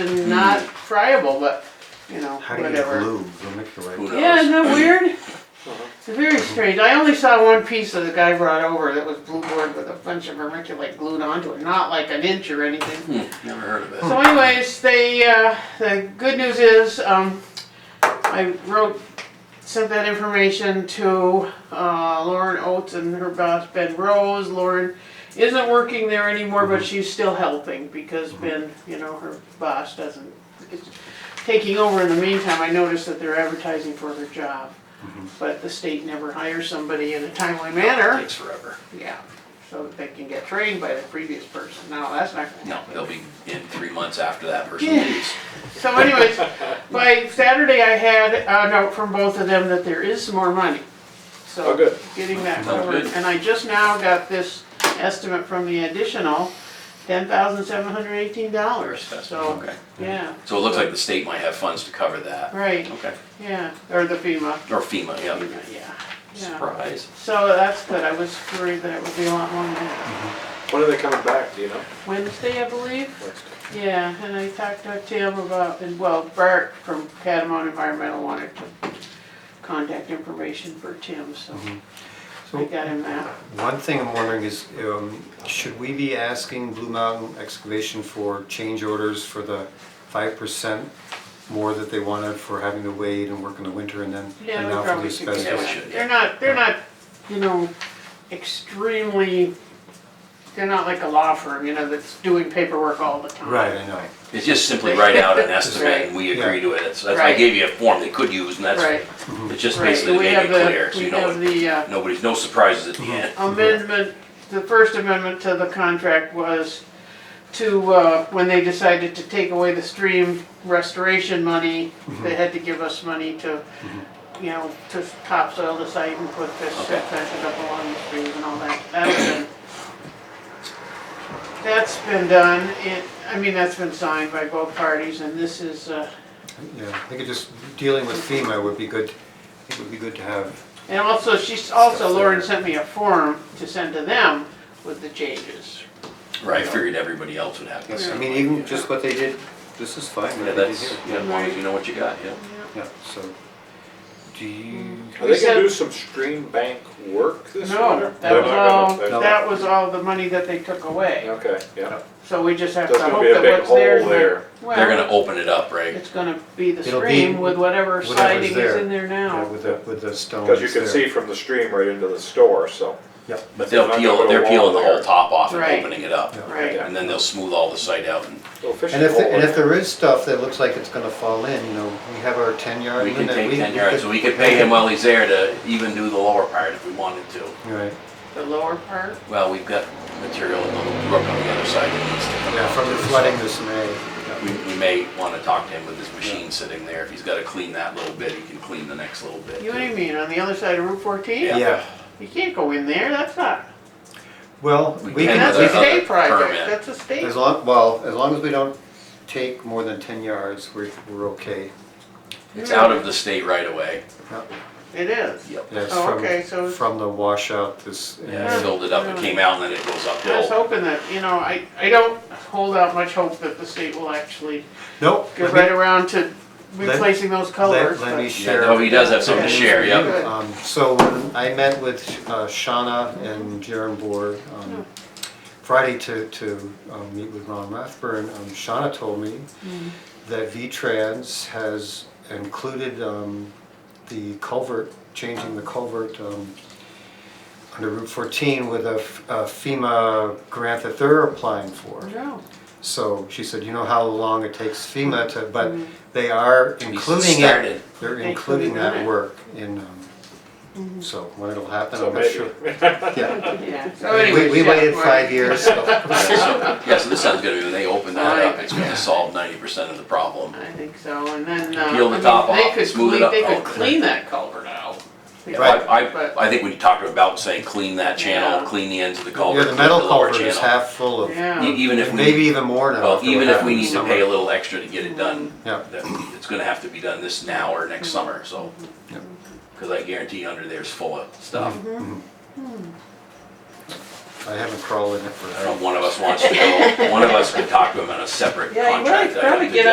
and not friable, but, you know, How do you whatever. glue, Uh-huh. glue microwave? Who Yeah, isn't knows? that weird? It's very strange. I only saw one piece that the guy brought over that was blue board with a bunch of vermiculite glued onto it, not like an inch or anything. Hmm, Never heard of it. So anyways, they, uh, the good news is, um, I wrote, sent that information to, uh, Lauren Oates and her boss Ben Rose. Lauren isn't working there anymore, but she's still helping because Ben, you know, her boss doesn't, is taking over in the meantime. I noticed that they're advertising for her job. Mm-hmm. But the state never hires somebody in a timely manner, Takes forever. yeah, so that they can get trained by the previous person. Now, that's not gonna No, happen. they'll be in three months after that person Yeah. leaves. So anyways, by Saturday, I had a note from both of them that there is some more money. So Oh, good. Getting that Oh, covered. good. And I just now got this estimate from the additional, ten thousand seven hundred eighteen dollars. First estimate, So, okay. yeah, So it looks like the state might have funds to cover that. right, Okay. yeah, or the FEMA, Or FEMA, yeah. FEMA, yeah, yeah. Surprise. So that's good. I was worried that it would be a lot more than Mm-hmm. that. When are they coming back, do you know? Wednesday, I believe. Wednesday. Yeah, and I talked to Tim about, and well, Bert from Catamount Environmental wanted to contact information for Tim, so I Mm-hmm. So got him that. one thing I'm wondering is, um, should we be asking Blue Mountain Excavation for change orders for the five percent more that they wanted for having to wait and work in the winter and then, Yeah, and we now for the probably should do asbestos? Yeah, we that. should, yeah. They're not, they're not, you know, extremely, they're not like a law firm, you know, that's doing paperwork all the time. Right, I know. It's just simply write out an Right. estimate and we agree to it. That's, that's, I Right. gave you a form they could use and Right, that's, it's just right. basically We to make have it the- clear, so you know, We have the, Uh-huh. Um, uh, what- nobody's, no surprises at the end. amendment, the first amendment to the contract was to, uh, when they decided to take away the stream restoration money, they had to give us money to, you know, to topsoil the site and put this, Okay. set it up along the stream and all that. That's been, that's been done. It, I mean, that's been signed by both parties and this is, uh, Yeah, I think it just, dealing with FEMA would be good, I think it would be good to have, and also she's, also Lauren sent me a form to send to them with the changes. Right, I figured everybody else would have this. I mean, even just what they did, this is fine, what Yeah, they did that's, here. yeah, as long as you know what you got, yeah. Yeah, so, do you, Are We they gonna said- do some stream bank work this No, winter? that was all, They're not that was all the money that they took away, gonna- Okay, yeah. so we just have to There's gonna hope be a that big what's hole there is not- there. They're Well, gonna open it up, right? it's gonna be the It'll be stream with whatever whatever's siding is there. in there yeah, now. with the, with the stones Cause you can there. see from the stream right into the store, so. Yep. But they'll Not peel, gonna they're go peeling the all there. whole top off and Right. opening it up. Yeah. Right, Yeah. And then they'll smooth all the site out and Little fishing And if, hole. and if there. there is stuff that looks like it's gonna fall in, you know, we have our ten yard we limit. can take ten we yards. So we could pay him while he's there to even do the lower part if we wanted to. Right, the lower part, Well, we've got material in the little brook on the other side that needs to come yeah, out from the too, so flooding this May. We, we may wanna talk to him with his machine sitting there. If he's gotta clean that little bit, he can clean the next little bit. you know too. what I mean, on the other side of Route fourteen? Yeah. Yeah, You can't go in there, that's not, well, We we and can can, that's we a with our can, state other project, permit. that's a state. as long, well, as long as we don't take more than ten yards, we're, we're okay. It's out of the state right away. Yeah, It is, Yep. That's Oh, okay, so- from, from the washout this, Yeah, I filled it up, it came out and then it goes I was uphill. hoping that, you know, I, I don't hold out much hope that the state will actually nope. get let me- right around to Let- replacing those Let, colors, let me but, share. Yeah, oh, he does have something to Okay. share, yep. Good. Um, So when I met with uh, Shauna and Jaron Boer um, Friday to, to um, meet with Ron Rathburn, um, Shauna told me that V-Trans has included um, the culvert, changing the culvert um, under Route 14 with a f- a FEMA grant that they're applying for. no, So she said, you know how long it takes FEMA to, but they are including started. it, they're Mm-hmm. They including included Mm-hmm. it. that work in, um, so when it'll happen, So I'm not maybe. sure. Yeah. yeah, Oh, so We, anyways. we yeah, waited well, five years, so, Yeah, so- Yeah, so this sounds good, when they open that up, it's gonna solve ninety percent of the problem. I think so, and then, uh, Peel the I mean, top they off, could smooth it clean, up, they could oh, clean that culvert out. They Yeah, could, I, But- I, I think when you talked about saying clean that channel, Yeah. clean the ends of the yeah, culvert, the clean metal the lower culvert is channel. half full of, Yeah. E- Even if maybe we, even more now. well, after what even if we happened need to summer. pay a little extra to get it done, Yeah, that- it's gonna have to be done this now or next summer, so. Yeah. Cause I guarantee under there's full of stuff. I haven't crawled in it for. I don't know if one of us wants to go, one of us could talk to him on a separate Yeah, you contract might item probably to get